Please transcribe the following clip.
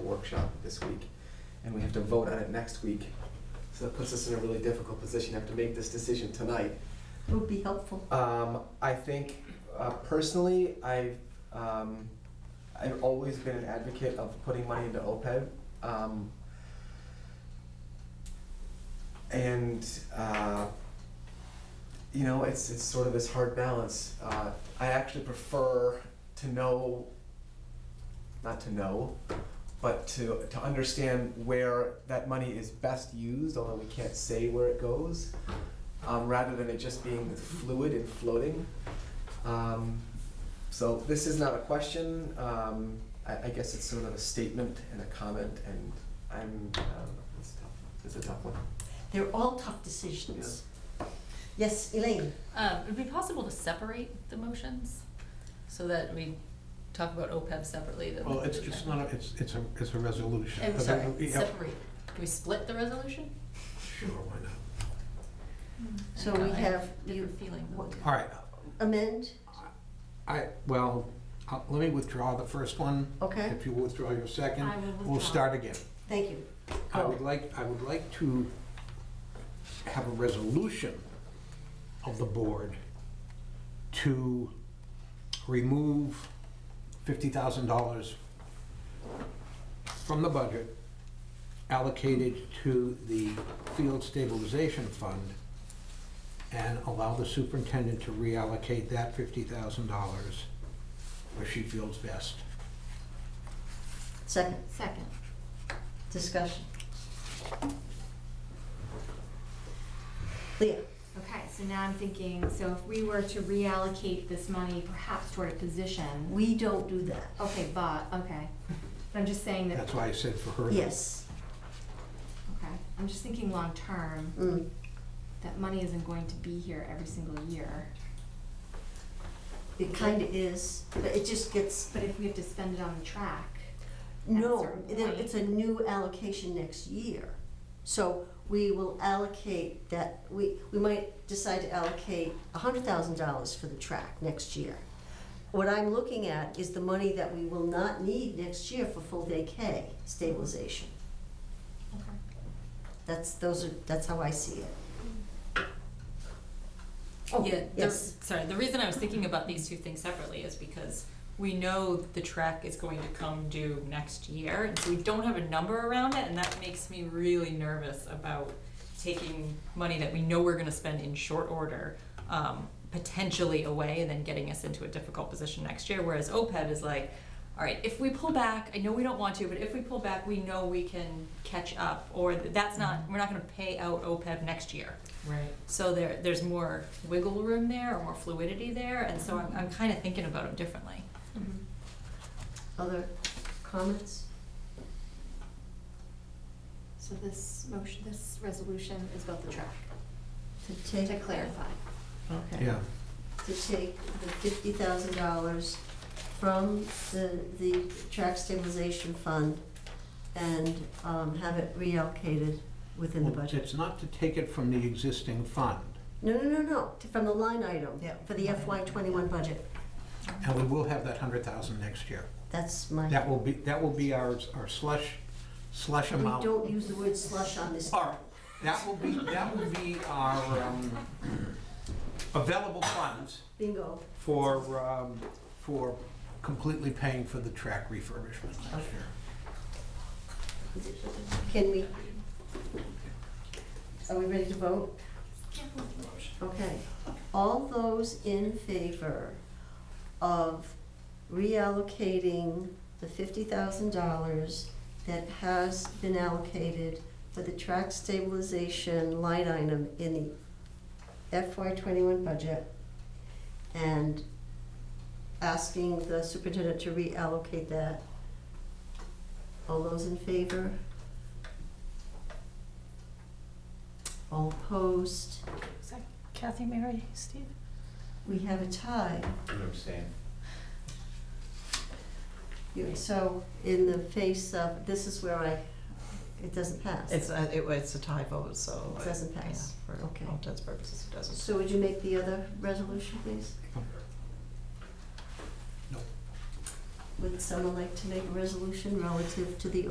workshop this week, and we have to vote on it next week. So that puts us in a really difficult position, have to make this decision tonight. It would be helpful. Um, I think uh, personally, I've um, I've always been an advocate of putting money into OPEB, um, and uh, you know, it's it's sort of this hard balance. Uh, I actually prefer to know, not to know, but to to understand where that money is best used, although we can't say where it goes um, rather than it just being fluid and floating. Um, so this is not a question. Um, I, I guess it's sort of a statement and a comment, and I'm. I don't know, it's tough. It's a tough one. They're all tough decisions. Yes, Elaine? Um, it'd be possible to separate the motions so that we talk about OPEB separately than. Well, it's, it's not, a- it's, it's a, it's a resolution. I'm But sorry, then we- yeah, separate. Can we split the resolution? Sure, why not? So we I have, a you Different feeling. what- All right, amend, I, well, I'll- let me withdraw the first one. okay? If you withdraw your second, I will we'll withdraw. start again. Thank you. I would like, I would like to have a resolution of the board to remove fifty thousand dollars from the budget allocated to the field stabilization fund and allow the superintendent to reallocate that fifty thousand dollars where she feels best. Second, Second. discussion. Leah? Okay, so now I'm thinking, so if we were to reallocate this money perhaps toward a position, We don't do that. okay, but, okay. But I'm just saying that, That's why I said for her. Yes. okay, I'm just thinking long-term, Mm. that money isn't going to be here every single year. It kind of is, but it just gets, But if we have to spend it on the track, no, certain there- point. it's a new allocation next year. So we will allocate that, we, we might decide to allocate $100,000 for the track next year. What I'm looking at is the money that we will not need next year for full day K stabilization. That's, those are, that's how I see it. Oh, Yeah, the, yes. sorry, the reason I was thinking about these two things separately is because we know the track is going to come due next year, and so we don't have a number around it, and that makes me really nervous about taking money that we know we're gonna spend in short order, um, potentially away and then getting us into a difficult position next year, whereas OPEB is like, all right, if we pull back, I know we don't want to, but if we pull back, we know we can catch up, or that's not, Mm-hmm. we're not gonna pay out OPEB next year. Right. So there, there's more wiggle room there, or more fluidity there, and so I'm, I'm kind of thinking about it differently. Other comments? so this motion, this resolution is about the track, To to take, clarify. okay. Yeah. To take the fifty thousand dollars from the, the track stabilization fund and, um, have it reallocated within the Well, budget. It's not to take it from the existing fund, No, no, no, no, to- from the line item, Yeah. for the FY twenty-one budget. and we will have that hundred thousand next year. That's my. That will be, that will be our, our slush, slush We amount. don't use the word slush on this. Or, that will be, that will be our, um, available funds Bingo. for, um, for completely paying for the track refurbishment next year. Can we? Are we ready to vote? Okay. All those in favor of reallocating the fifty thousand dollars that has been allocated for the track stabilization line item in the FY twenty-one budget and asking the superintendent to reallocate that. All those in favor? All opposed? Kathy, Mary, Steve? We have a tie. You- So in the face of, this is where I, it doesn't pass. It's a, it, it's a tie vote, so. It doesn't yeah, pass. For Okay. all intents and purposes, it doesn't. So would you make the other resolution, please? No. Would someone like to make a resolution relative to the